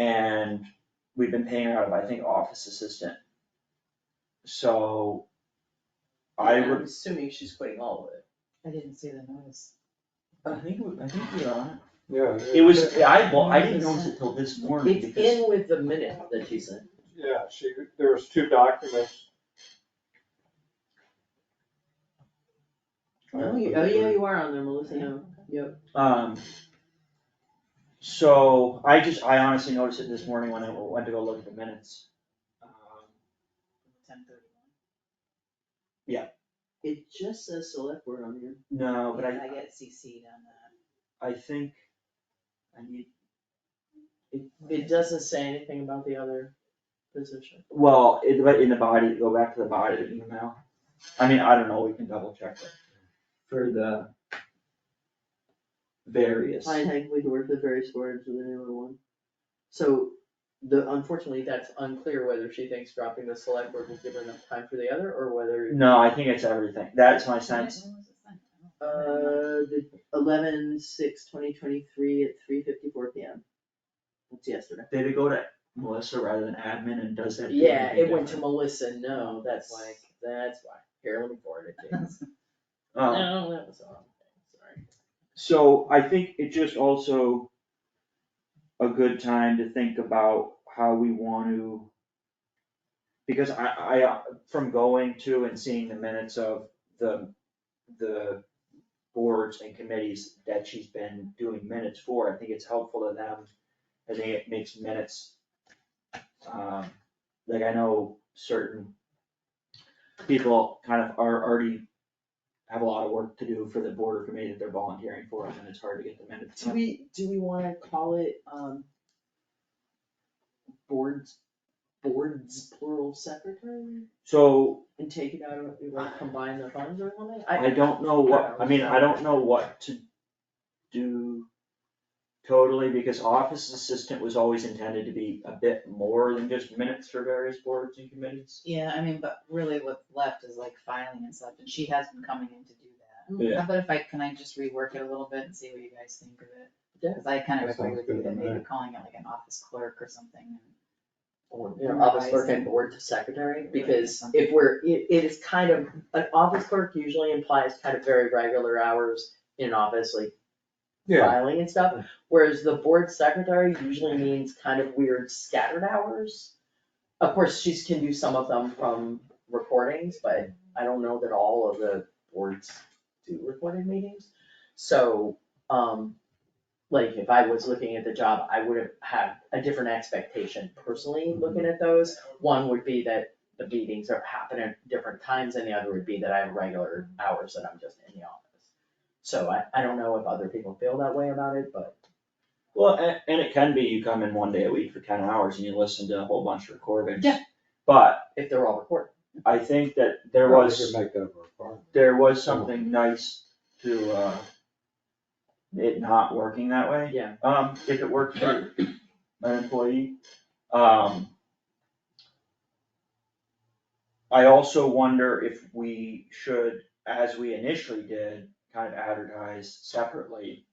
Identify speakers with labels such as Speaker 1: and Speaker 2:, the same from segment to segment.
Speaker 1: And we've been paying her out of, I think, office assistant. So I
Speaker 2: I'm
Speaker 1: would,
Speaker 2: assuming she's quitting all of it.
Speaker 3: I didn't see the notice.
Speaker 1: I think, we- I think we are.
Speaker 4: Yeah.
Speaker 1: It was, I, well, I didn't notice it till this morning
Speaker 2: It's
Speaker 1: because,
Speaker 2: in with the minute that you sent.
Speaker 4: Yeah, she, there was two documents.
Speaker 2: Oh, you- oh, yeah, you are on there, Melissa, no, yep.
Speaker 1: um. So I just, I honestly noticed it this morning when I went to go look at the minutes. Um,
Speaker 3: Ten thirty-one.
Speaker 2: It just says select word on here.
Speaker 1: No, but
Speaker 3: I
Speaker 1: I,
Speaker 3: get CC'd on that.
Speaker 1: I think I need,
Speaker 2: It, it doesn't say anything about the other position.
Speaker 1: well, it, but in the body, go back to the body of the email. I mean, I don't know, we can double check it for the various.
Speaker 2: I think we work the various words with the newer one. So, the, unfortunately, that's unclear whether she thinks dropping the select word will give her enough time for the other, or whether,
Speaker 1: No, I think it's everything. That's my sense.
Speaker 3: When was it sent? I don't remember.
Speaker 2: uh, the eleven six twenty twenty-three at three fifty-four P M. That's yesterday.
Speaker 1: Did it go to Melissa rather than admin and does that? do
Speaker 2: Yeah,
Speaker 1: anything
Speaker 2: it went to
Speaker 1: different?
Speaker 2: Melissa, no, that's like, that's why, here, let me forward it to you.
Speaker 1: Um,
Speaker 2: No, that was all, sorry.
Speaker 1: So I think it just also a good time to think about how we want to. Because I, I, uh, from going to and seeing the minutes of the, the boards and committees that she's been doing minutes for, I think it's helpful to them. I think it makes minutes, um, like I know certain people kind of are already have a lot of work to do for the board or committee that they're volunteering for, and then it's hard to get them in at the
Speaker 2: Do
Speaker 1: time.
Speaker 2: we, do we wanna call it, um, boards, boards plural secretary?
Speaker 1: So
Speaker 2: And take it out of, we wanna combine the funds or something?
Speaker 1: I don't know what, I mean, I don't know what to do totally, because office assistant was always intended to be a bit more than just minutes for various boards and committees.
Speaker 3: Yeah, I mean, but really what's left is like filing and stuff, and she has been coming in to do that.
Speaker 1: Yeah.
Speaker 3: How about if I, can I just rework it a little bit and see what you guys think of it?
Speaker 2: Yeah.
Speaker 3: Cause I kind
Speaker 4: That
Speaker 3: of agree
Speaker 4: sounds
Speaker 3: with you
Speaker 4: good to
Speaker 3: that maybe
Speaker 4: me.
Speaker 3: calling it like an office clerk or something. and-
Speaker 2: Or, you know, office clerk and board secretary, because if we're, it, it is kind of, an office clerk usually implies kind of very regular hours in an office, like
Speaker 4: Yeah,
Speaker 2: filing and stuff, whereas the board secretary usually means kind of weird scattered hours. Of course, she's can do some of them from recordings, but I don't know that all of the boards do recorded meetings. So, um, like if I was looking at the job, I would have had a different expectation personally looking at those. One would be that the meetings are happening at different times and the other would be that I have regular hours that I'm just in the office. So I, I don't know if other people feel that way about it, but
Speaker 1: Well, and, and it can be you come in one day a week for ten hours and you listen to a whole bunch of recordings.
Speaker 2: Yeah.
Speaker 1: But
Speaker 2: if they're all recorded.
Speaker 1: I think that there
Speaker 4: Well, we
Speaker 1: was.
Speaker 4: could Make that a requirement.
Speaker 1: there was something nice to, uh, it not working that way.
Speaker 2: Yeah.
Speaker 1: Um, if it worked for an employee, um. I also wonder if we should, as we initially did, kind of advertise separately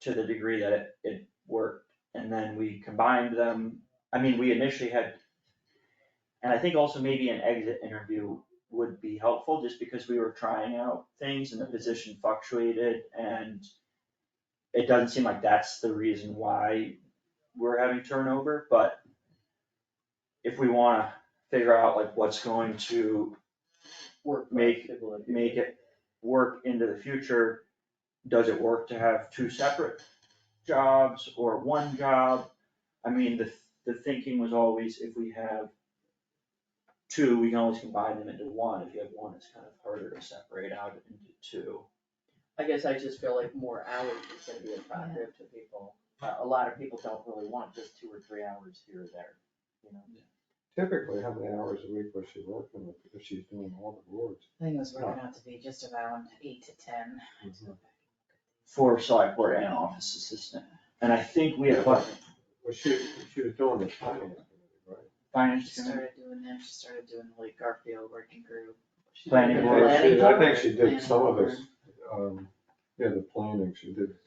Speaker 1: to the degree that it, it worked, and then we combined them, I mean, we initially had, and I think also maybe an exit interview would be helpful, just because we were trying out things and the position fluctuated and it doesn't seem like that's the reason why we're having turnover, but if we wanna figure out like what's going to
Speaker 2: Work.
Speaker 1: Make- make it work into the future, does it work to have two separate jobs or one job? I mean, the, the thinking was always if we have two, we can always combine them into one. If you have one, it's kind of harder to separate out into two.
Speaker 2: I guess I just feel like more hours is gonna be attractive to people. A- A lot of people don't really want just two or three hours here or there, you know?
Speaker 4: Typically, how many hours a week was she working with, if she's doing all the boards?
Speaker 3: I think it was working out to be just around eight to ten.
Speaker 1: For select board and office assistant. And I think we have what,
Speaker 4: Well, she, she was doing the finance,
Speaker 3: She
Speaker 4: right?
Speaker 1: finance committee?
Speaker 3: started doing that, she started doing the like Garfield working group. She-
Speaker 1: Planning board.
Speaker 4: I think she- I think she
Speaker 3: Planning
Speaker 4: did some of
Speaker 3: board.
Speaker 4: this, um, yeah, the planning, she did